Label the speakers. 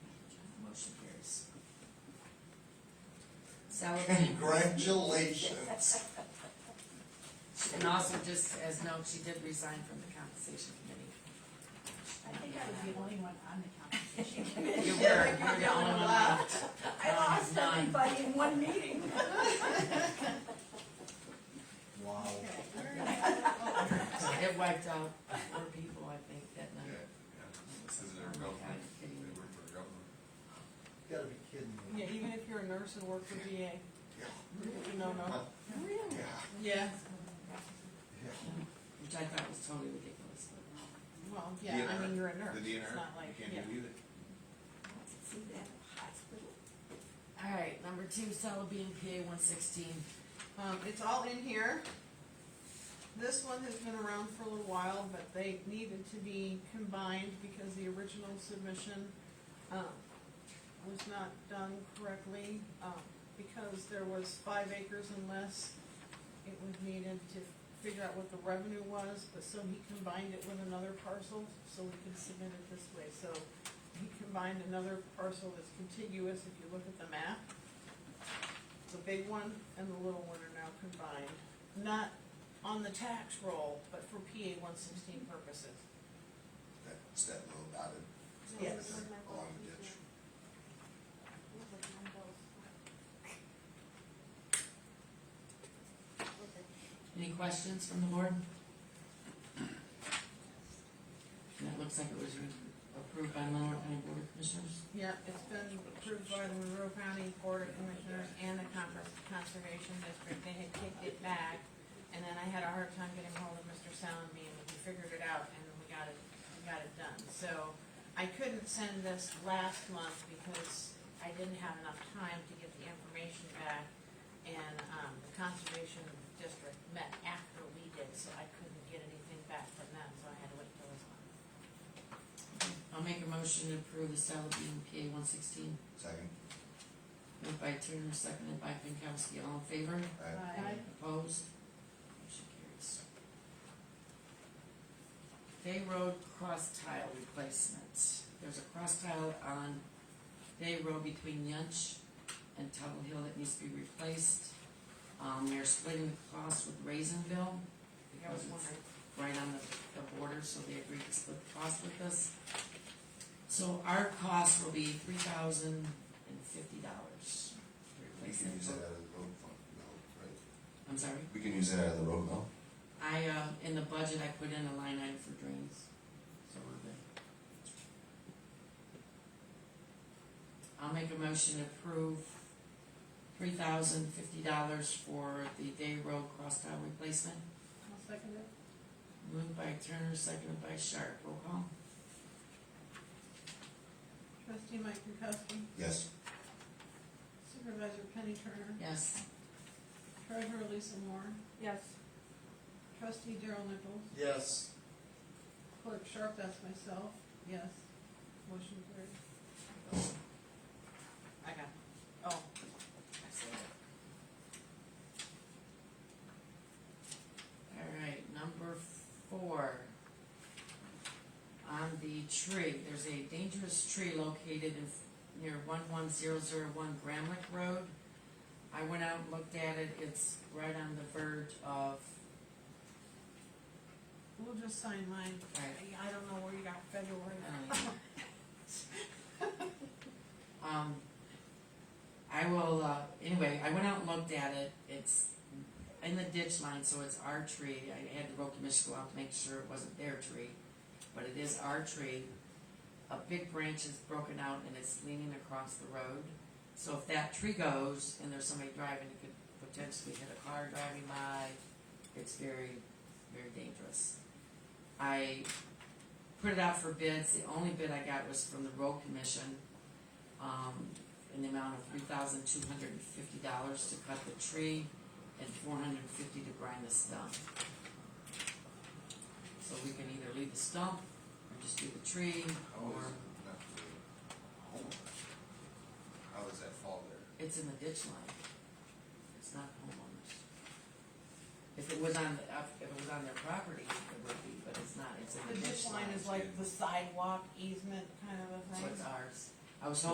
Speaker 1: So,
Speaker 2: Congratulations.
Speaker 1: and also just as note, she did resign from the compensation committee.
Speaker 3: I think I was the only one on the compensation committee.
Speaker 1: You were, you were the only one left.
Speaker 3: I lost
Speaker 1: Nine.
Speaker 3: everybody in one meeting.
Speaker 2: Wow.
Speaker 1: It wiped out four people, I think, that
Speaker 4: Yeah,
Speaker 1: night.
Speaker 4: yeah. This is their government, they work for government.
Speaker 2: Gotta be kidding me.
Speaker 5: Yeah, even if you're a nurse and work for VA,
Speaker 2: Yeah,
Speaker 5: no, no.
Speaker 2: yeah,
Speaker 5: Yeah,
Speaker 2: yeah.
Speaker 1: Which I thought was totally ridiculous, but.
Speaker 5: well, yeah, I mean, you're a nurse,
Speaker 4: The
Speaker 5: it's
Speaker 4: DNR,
Speaker 5: not like,
Speaker 4: you
Speaker 5: yeah.
Speaker 4: can't do either.
Speaker 3: See that hospital?
Speaker 1: All right, number two, Cell B and PA one sixteen.
Speaker 5: Um, it's all in here. This one has been around for a little while, but they needed to be combined because the original submission, um, was not done correctly, um, because there was five acres and less. It was needed to figure out what the revenue was, but so he combined it with another parcel, so we could submit it this way, so he combined another parcel that's contiguous, if you look at the map. The big one and the little one are now combined, not on the tax roll, but for PA one sixteen purposes.
Speaker 2: That's that little dotted. Oh,
Speaker 5: Yes.
Speaker 2: Along the ditch.
Speaker 1: Any questions from the board? That looks like it was re- approved by Monroe County Board of Commissioners.
Speaker 5: Yeah, it's been approved by the Monroe County Board of Commissioners and the Conver- Conservation District, they had kicked it back, and then I had a hard time getting hold of Mr. Salome, and we figured it out, and we got it, we got it done, so. I couldn't send this last month because I didn't have enough time to get the information back, and, um, the Conservation District met after we did, so I couldn't get anything back from them, so I had to wait till this month.
Speaker 1: I'll make a motion to approve the Cell B and PA one sixteen.
Speaker 2: Second,
Speaker 1: Moved by Turner, seconded by Pinkowski, all in favor?
Speaker 2: I,
Speaker 5: Uh,
Speaker 1: Opposed? Motion carries. Bay Road cross tile replacement. There's a cross tile on Bay Road between Yunch and Tuttle Hill that needs to be replaced. Um, they're splitting the cost with Raisinville
Speaker 5: I
Speaker 1: because
Speaker 5: was
Speaker 1: it's
Speaker 5: wondering.
Speaker 1: right on the, the border, so they agreed to split the cost with us. So our cost will be three thousand and fifty dollars.
Speaker 2: we can use that out of the road fund, no, right?
Speaker 1: I'm sorry?
Speaker 2: We can use that out of the road, no?
Speaker 1: I, uh, in the budget, I put in a line item for drains, so we're good. I'll make a motion to approve three thousand fifty dollars for the day road cross tile replacement.
Speaker 5: I'll second it.
Speaker 1: Moved by Turner, seconded by Sharp, roll call.
Speaker 5: Trustee Mike Pankowski,
Speaker 2: Yes.
Speaker 5: Supervisor Penny Turner,
Speaker 1: Yes.
Speaker 5: Treasurer Lisa Moore. Yes. Trustee Daryl Nichols,
Speaker 2: Yes.
Speaker 5: Clerk Sharp, that's myself, yes. Motion carried. I got, it. oh,
Speaker 1: Alright, number four. On the tree, there's a dangerous tree located in, near one one zero zero one Gramlick Road. I went out and looked at it, it's right on the verge of,
Speaker 5: we'll just sign mine.
Speaker 1: right,
Speaker 5: I, I don't know where you got February.
Speaker 1: Um, I will, uh, anyway, I went out and looked at it, it's in the ditch line, so it's our tree, I had the road commissioner go out to make sure it wasn't their tree, but it is our tree. A big branch is broken out and it's leaning across the road, so if that tree goes and there's somebody driving, it could potentially hit a car driving by, it's very, very dangerous. I put it out for bids, the only bid I got was from the road commission, um, in the amount of three thousand two hundred and fifty dollars to cut the tree and four hundred and fifty to grind the stump. So we can either leave the stump or just do the tree,
Speaker 4: How
Speaker 1: or
Speaker 4: is, not the homeowners, how does that fall there?
Speaker 1: it's in the ditch line. It's not homeowners. If it was on, the- if it was on their property, it would be, but it's not, it's in
Speaker 5: The
Speaker 1: the
Speaker 5: ditch line is
Speaker 4: like
Speaker 5: like the sidewalk easement kind of a
Speaker 1: So
Speaker 5: thing.
Speaker 1: it's ours. I was hoping